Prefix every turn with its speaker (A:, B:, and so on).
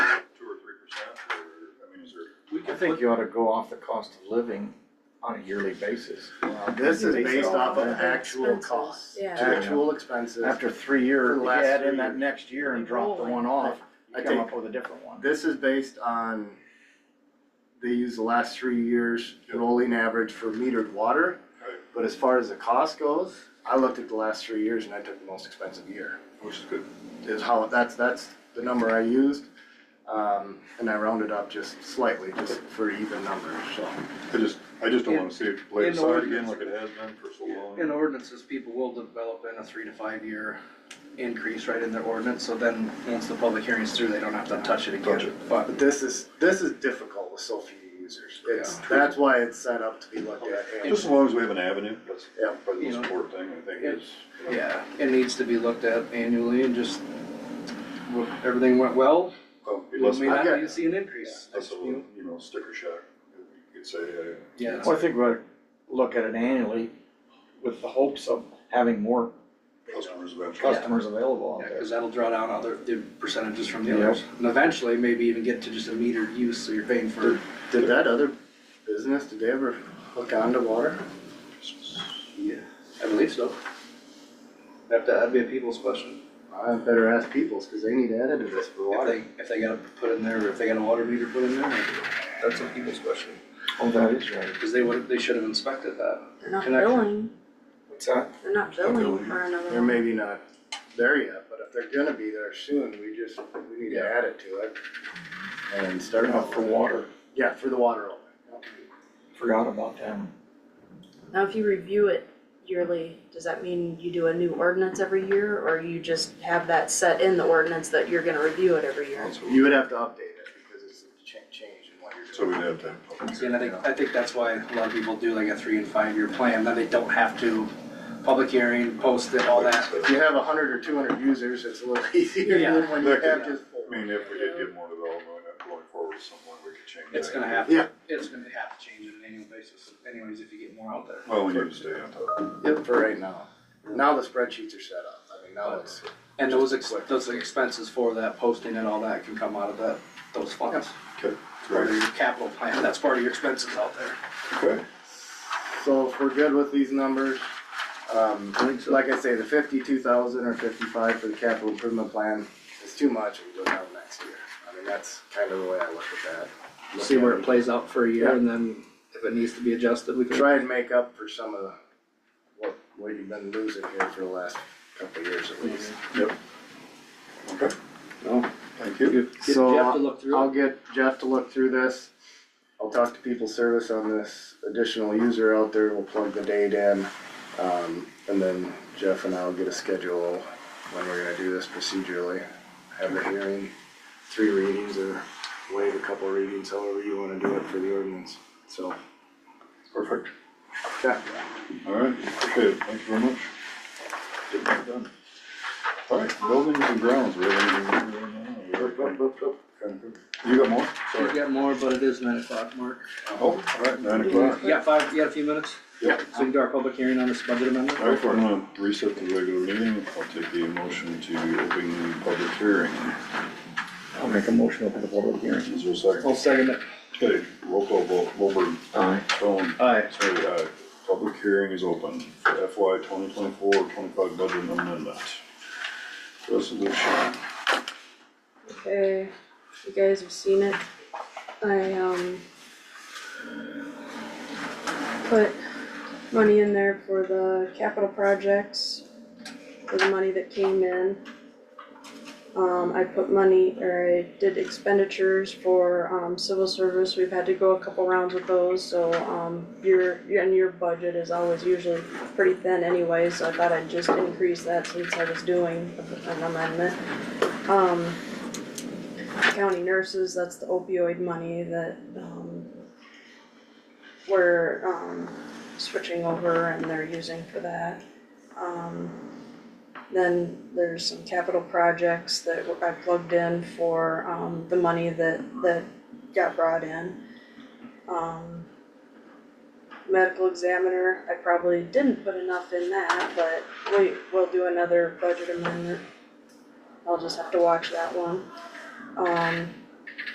A: think you ought to go off the cost of living on a yearly basis.
B: Well, this is
A: Based
B: based
A: on
B: off of
A: that.
B: actual
C: Expenses,
B: costs,
C: yeah.
B: actual expenses.
A: After three
B: For
A: years,
B: the
A: you
B: last
A: add
B: three
A: in that
B: years.
A: next year and drop the one off, you
B: I
A: come
B: think-
A: up with a different one.
B: This is based on, they use the last three years rolling average for metered water.
D: Right.
B: But as far as the cost goes, I looked at the last three years and I took the most expensive year,
D: which is good.
B: is how, that's, that's the number I used. Um, and I rounded up just slightly, just for even numbers, so.
D: I just, I just don't wanna see it played
E: In- in
D: aside again
E: ordinance.
D: like it has been for so
E: In
D: long.
E: ordinances, people will develop in a three to five year increase right in their ordinance, so then, once the public hearing's through, they don't have to touch it
D: Touch
E: again.
D: it.
E: But
B: But this is, this is difficult with so few users. It's, that's why it's set up to be looked at annually.
D: Just as long as we have an avenue, that's
B: Yeah.
D: probably the
E: You know.
D: most important thing, I think, is. you know,
E: Yeah, it needs to be looked at annually and just, well, everything went well,
D: oh,
E: we
D: Less,
E: may not
B: got-
E: need to see an increase.
D: less of a,
E: you know?
D: you know, sticker shock, you could say, uh,
E: Yeah,
A: Well, I think we ought to look at it annually with the hopes of having more
D: customers eventually.
A: customers available out
E: yeah,
A: there.
E: cause that'll draw down other, the percentages from the
A: Yep.
E: others. And eventually, maybe even get to just a metered use, so you're paying for,
B: Did that other business, did they ever hook onto water?
E: yeah, I believe so. That, that'd be a people's question.
B: I better ask Peoples, cause they need to edit this for
E: If
B: water.
E: they, if they got to put in there, or if they got a water meter put in there, that's a people's question,
A: Oh, that is right.
E: because they would, they should have inspected that.
C: They're not
E: Connection.
C: billing,
A: What's that?
C: they're not
D: not
C: billing
D: billing.
C: for another
B: They're
C: one.
B: maybe not there yet, but if they're gonna be there soon, we just, we need to add it to it. And start
A: Turn
B: off
A: off for water,
B: Yeah, for the water only.
A: forgot about them.
C: Now, if you review it yearly, does that mean you do a new ordinance every year, or you just have that set in the ordinance that you're gonna review it every year?
D: So
B: You would have to update it because it's a cha- change in what you're doing.
D: so we'd have to have public
E: See, And I think, I think that's why a lot of people do like a three and five year plan, then they don't have to public hearing, post it, all that.
B: If you have a hundred or two hundred users, it's a little easier than when you
D: Yeah.
B: have just four.
D: I mean, if we did get more development uh, going forward somewhere, we could change that.
E: It's gonna happen.
B: Yeah.
E: It's gonna have to change on an annual basis anyways, if you get more out there.
D: Well, we need to stay on top.
B: Yep, for right now. Now the spreadsheets are set up. I mean,
D: Oh.
B: now it's,
E: And those ex, those expenses for that posting and all that can come out of that, those funds. Part of your capital plan, that's part of your expenses out there.
D: Okay.
B: so if we're good with these numbers, um,
D: I think so.
B: like I say, the fifty-two thousand or fifty-five for the capital improvement plan is too much, we'll go down next year. I mean, that's kind of the way I look at that.
E: See where it plays out for a year
B: Yeah.
E: and then if it needs to be adjusted, we can.
B: Try and make up for some of the, what, what you've been losing here for the last couple of years at least.
D: Okay,
E: No,
D: Mm-hmm. thank you.
E: Get
B: So,
E: Jeff to look through it.
B: I'll get Jeff to look through this. I'll talk to people service on this additional user out there. We'll plug the date in. Um, and then Jeff and I'll get a schedule when we're gonna do this procedurally. Have a hearing, three readings or waive a couple readings, however you wanna do it for the ordinance. So,
D: Perfect.
B: yeah,
D: All right, okay, thank you very much. Get that done. All right, buildings and grounds, we have anything we have right now? You got more?
E: We've got more, but it is nine o'clock, Mark.
D: Oh, all right, nine o'clock.
E: You got five, you got a few minutes?
D: Yeah.
E: So we can do our public hearing on this budget amendment?
D: All right, we're gonna reset the regular meeting. I'll take the motion to open the public hearing.
A: I'll make a motion to open the public hearing.
D: Is there a second?
E: I'll second it.
D: Okay, roll call vote, Mulberg.
A: Aye.
D: Stone.
E: Aye.
D: Sorry, aye. Public hearing is open for FY twenty twenty-four, twenty-five budget amendment. Resolution.
C: Okay, Uh, you guys have seen it. I, um, put money in there for the capital projects, for the money that came in. Um, I put money, or I did expenditures for, um, civil service. We've had to go a couple rounds with those, so, um, your, and your budget is always usually pretty thin anyway, so I thought I'd just increase that since I was doing an amendment. Um, county nurses, that's the opioid money that, um, we're, um, switching over and they're using for that. Um, then there's some capital projects that I plugged in for, um, the money that, that got brought in. Um, medical examiner, I probably didn't put enough in that, but we, we'll do another budget amendment. I'll just have to watch that one. Um,